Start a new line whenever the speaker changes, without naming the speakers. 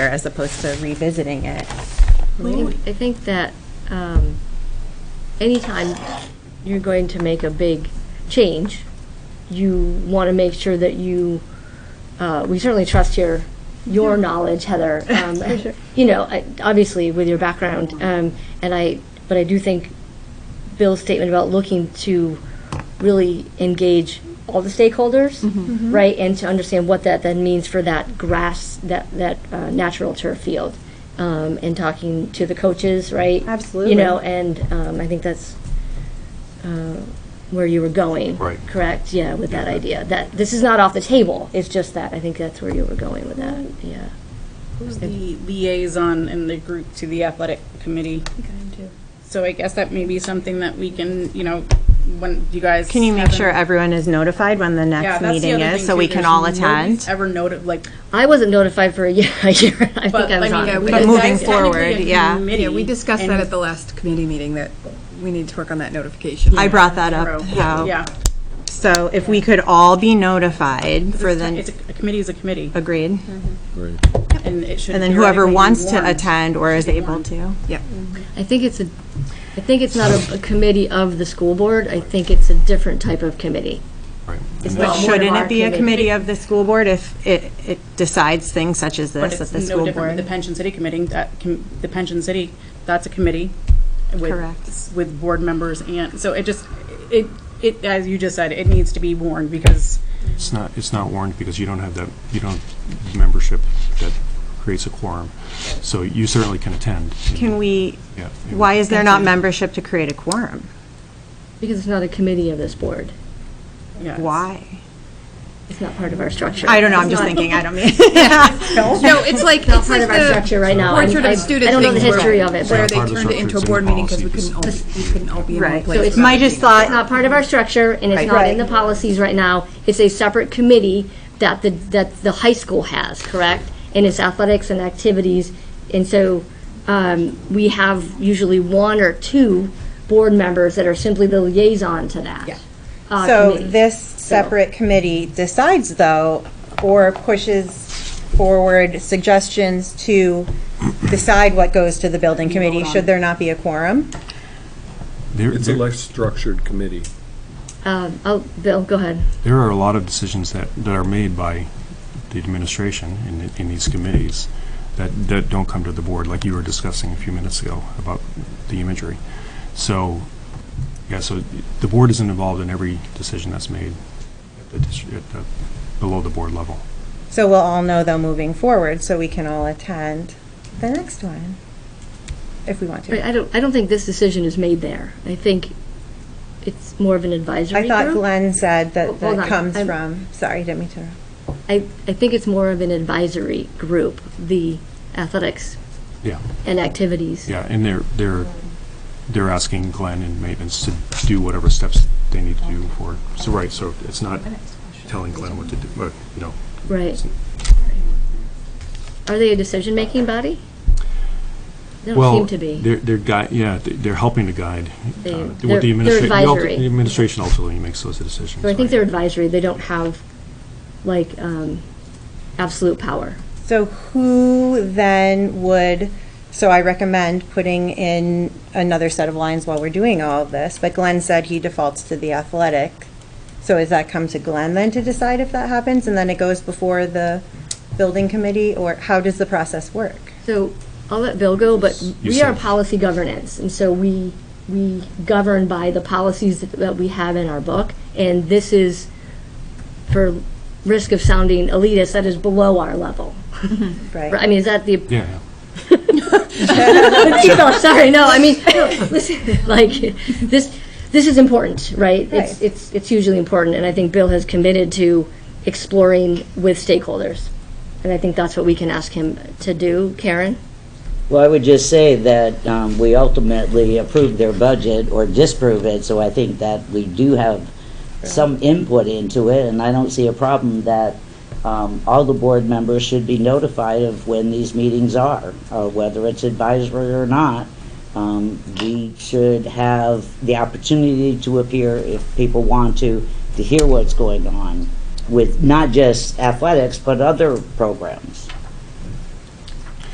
as opposed to revisiting it.
Well, I think that um, anytime you're going to make a big change, you want to make sure that you, uh, we certainly trust your, your knowledge, Heather. Um, You know, I- obviously with your background, um, and I, but I do think Bill's statement about looking to really engage all the stakeholders,
Mm-hmm.
right, and to understand what that then means for that grass, that that uh, natural turf field, um, and talking to the coaches, right?
Absolutely.
You know, and um, I think that's uh, where you were going.
Right.
Correct. Yeah, with that idea that this is not off the table. It's just that I think that's where you were going with that. Yeah.
Who's the liaison in the group to the athletic committee? So I guess that may be something that we can, you know, when you guys.
Can you make
have
sure
an-
everyone is notified when the
Yeah,
next
that's the
meeting
other
is,
thing
so
too.
we can
There's
all
nobody's
attend?
Ever noted, like,
I wasn't notified for a year. A year. I think
but
I
I
was
mean,
on.
yeah,
it,
we.
But
that's
moving
technically
forward,
a
yeah.
committee,
Yeah, we discussed that
and-
at the last committee meeting, that we need to work on that notification.
I brought that up,
Yeah,
how,
yeah.
so if we could all be notified for
It's
the,
a a committee is a committee,
agreed?
and it should.
And then whoever
theoretically be
wants to
warned.
attend or is
Should be
able
warned.
to.
I think it's a, I think it's not a, a committee of the school board. I think it's a different type of committee. It's
But
not one of
shouldn't
our
it be a
committees.
committee of the school board if it, it decides things such as
But
this at
it's
the
no
school
different with the
board?
pension city committee, that, com- the pension city, that's a committee. with-
Correct.
With board members and, so it just, it, it, as you just said, it needs to be warned because
It's not, it's not warned because you don't have that, you don't, membership that creates a quorum. So you certainly can attend.
Can we,
Yeah.
why is there not membership to create a quorum?
Because it's not a committee of this board.
Yes.
Why?
It's not part of our structure.
I don't know, I'm
It's
just
not-
thinking, I don't mean.
No, it's like,
Not
it's
part of
like
our structure
the
right now. I'm-
portrait
I-
of student
I don't know the
things where-
history of it,
Where
but
they
Part of the
turned it into a
structure,
board
it's in
meeting because
policy.
we couldn't all, we couldn't all be in one
Right.
place.
So it's
without
My
it
just
being-
it's not
thought,
part of our structure and it's not in the policies right now. It's a separate committee that the, that the high school has, correct? And it's athletics and activities. And so, um, we have usually one or two board members that are simply the liaison to that. uh,
So
committee.
this separate committee decides, though, or pushes forward suggestions to decide what goes to the building committee, should there not be a quorum?
There-
It's a
there-
less structured committee.
Um, oh, Bill, go ahead.
there are a lot of decisions that, that are made by the administration in, the- in these committees that, that don't come to the board, like you were discussing a few minutes ago about the imagery. So, yeah, so the board isn't involved in every decision that's made at the, dis- at the, below the board level.
So we'll all know, though, moving forward, so we can all attend the next one, if we want
Right,
to.
I don't, I don't think this decision is made there. I think it's more of an advisory
I
group.
thought Glenn said that
Hold
that
on,
comes
I'm-
from, sorry, didn't mean to interrupt.
I, I think it's more of an advisory group, the athletics
Yeah.
and activities.
Yeah, and they're, they're, they're asking Glenn and maintenance to do whatever steps they need to do for, so, right, so it's not telling Glenn what to do, but, you know,
Right. Are they a decision-making body? They don't
well,
seem to be.
they're, they're gui, yeah, they- they're helping to guide. uh,
They-
what
they're-
the
they're
administra- the ulti-
advisory.
The administration ultimately makes those decisions.
So I think
right?
they're advisory. They don't have, like, um, absolute power.
So who then would, so I recommend putting in another set of lines while we're doing all of this, but Glenn said he defaults to the athletic. So does that come to Glenn then to decide if that happens, and then it goes before the building committee, or how does the process work?
So I'll let Bill go, but
You
we are
said-
policy governance, and so we, we govern by the policies that- that we have in our book, and this is, for risk of sounding elitist, that is below our level. I
Right?
mean, is that the,
Yeah, yeah.
no, sorry, no, I mean, no, listen, like, this, this is important, right? It's,
Right.
it's, it's hugely important, and I think Bill has committed to exploring with stakeholders. And I think that's what we can ask him to do. Karen?
Well, I would just say that um, we ultimately approve their budget or disprove it, so I think that we do have some input into it, and I don't see a problem that um, all the board members should be notified of when these meetings are, uh, whether it's advisory or not. Um, We should have the opportunity to appear if people want to, to hear what's going on with not just athletics, but other programs.